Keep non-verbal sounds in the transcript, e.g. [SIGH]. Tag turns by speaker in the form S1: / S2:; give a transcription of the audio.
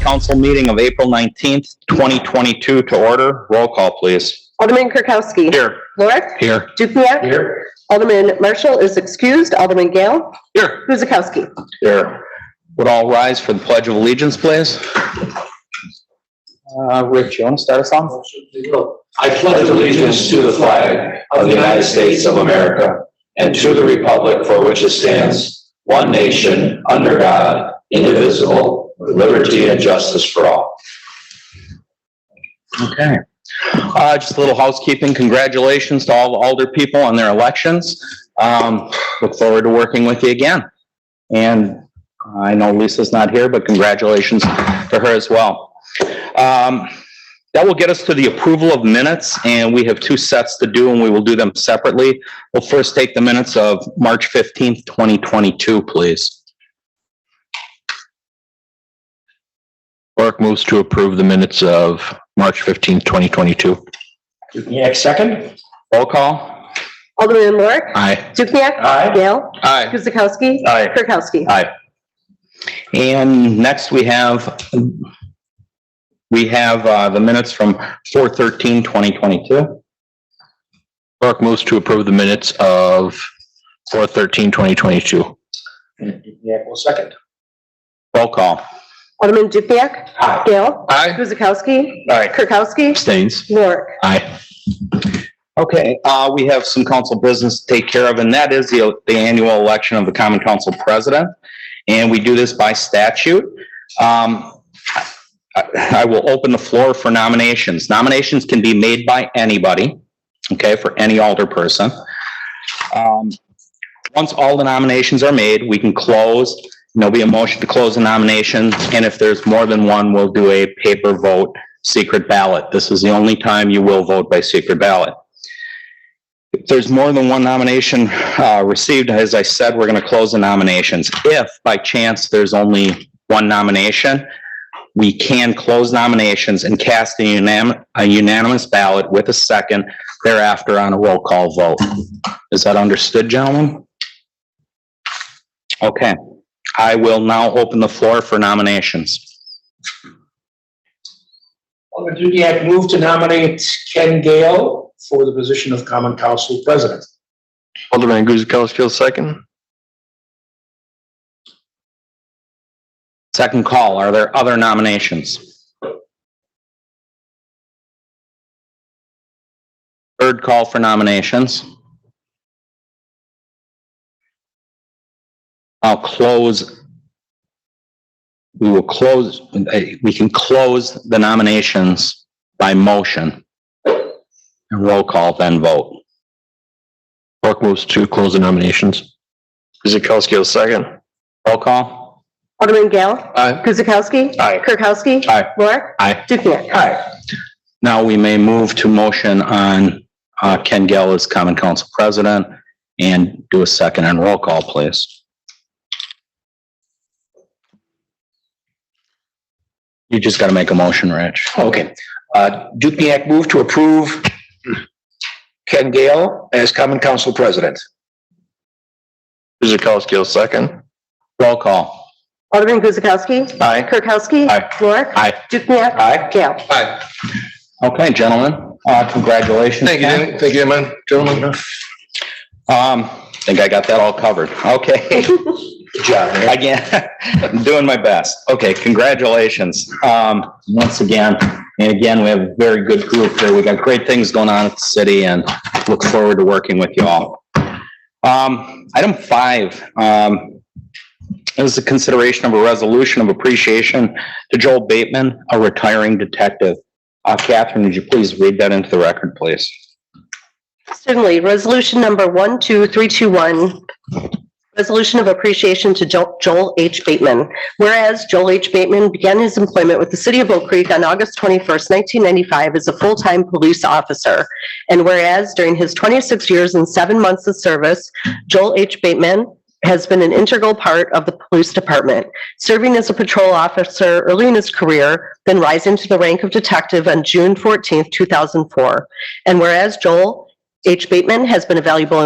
S1: council meeting of April 19th, 2022 to order. Roll call, please.
S2: Alderman Kirkowski.
S1: Here.
S2: Lorik.
S1: Here.
S2: Dukenyak.
S1: Here.
S2: Alderman Marshall is excused. Alderman Gale.
S1: Here.
S2: Guzekowski.
S1: Here. Would all rise for the Pledge of Allegiance, please? Uh, Rich, you want to start us off?
S3: I pledge allegiance to the flag of the United States of America and to the republic for which it stands, one nation, under God, indivisible, with liberty and justice for all.
S1: Okay. Uh, just a little housekeeping. Congratulations to all the Alder people on their elections. Um, look forward to working with you again. And I know Lisa's not here, but congratulations to her as well. Um, that will get us to the approval of minutes and we have two sets to do and we will do them separately. We'll first take the minutes of March 15th, 2022, please.
S4: Mark moves to approve the minutes of March fifteenth, twenty twenty-two.
S3: Dukenyak, second.
S1: Roll call.
S2: Alderman Lorik.
S4: Aye.
S2: Dukenyak.
S3: Aye.
S2: Gale.
S4: Aye.
S2: Guzekowski.
S1: Aye.
S2: Kirkowski.
S1: And next we have, we have uh, the minutes from 4/13/2022.
S4: Mark moves to approve the minutes of four thirteen, twenty twenty-two.
S3: Dukenyak will second.
S1: Roll call.
S2: Alderman Dukenyak.
S3: Aye.
S2: Gale.
S4: Aye.
S2: Guzekowski.
S1: Aye.
S2: Kirkowski.
S4: Abstains.
S2: Lorik.
S4: Aye.
S1: Okay, uh, we have some council business to take care of, and that is the, the annual election of the common council president. And we do this by statute. Um, I, I will open the floor for nominations. Nominations can be made by anybody, okay, for any alder person. Um, once all the nominations are made, we can close. There'll be a motion to close the nomination, and if there's more than one, we'll do a paper vote, secret ballot. This is the only time you will vote by secret ballot. If there's more than one nomination uh, received, as I said, we're going to close the nominations. If by chance there's only one nomination, we can close nominations and cast a unanim- a unanimous ballot with a second thereafter on a roll call vote. Is that understood, gentlemen? Okay, I will now open the floor for nominations.
S3: Alderman Dukenyak move to nominate Ken Gale for the position of Common Council President.
S4: Alderman Guzekowski, second.
S1: Second call, are there other nominations? Third call for nominations. I'll close. We will close, eh, we can close the nominations by motion. And roll call, then vote.
S4: Mark moves to close the nominations. Guzekowski, second.
S1: Roll call?
S2: Alderman Gale.
S4: Aye.
S2: Guzekowski.
S1: Aye.
S2: Kirkowski.
S1: Aye.
S2: Lorik.
S1: Aye.
S2: Dukenyak.
S1: Aye. Now we may move to motion on uh, Ken Gale as Common Council President and do a second and roll call, please. You just got to make a motion, Rich.
S5: Okay, uh, Dukenyak move to approve Ken Gale as common council president.
S4: Guzekowski, second.
S1: Roll call.
S2: Alderman Guzekowski.
S5: Aye.
S2: Kirkowski.
S1: Aye.
S2: Lorik.
S1: Aye.
S2: Dukenyak.
S5: Aye.
S2: Gale.
S5: Aye.
S1: Okay, gentlemen, uh, congratulations. Ken.
S5: thank you, man, gentlemen.
S1: Um, I think I got that all covered. Okay. [LAUGHS]
S5: Good job, man.
S1: Again, [LAUGHS] I'm doing my best. Okay, congratulations. Um, once again, and again, we have a very good group here. We got great things going on at the city and look forward to working with you all. Um, item five, um, is the consideration of a resolution of appreciation to Joel Bateman, a retiring detective. Uh, Catherine, would you please read that into the record, please?
S2: Certainly. Resolution number 12321, resolution of appreciation to Jo- Joel H. Bateman. Whereas Joel H. Bateman began his employment with the city of Oak Creek on August 21st, 1995 as a full-time police officer. And whereas during his 26 years and seven months of service, Joel H. Bateman has been an integral part of the police department, serving as a patrol officer early in his career, then rising to the rank of detective on June 14th, 2004. And whereas Joel H. Bateman has been a valuable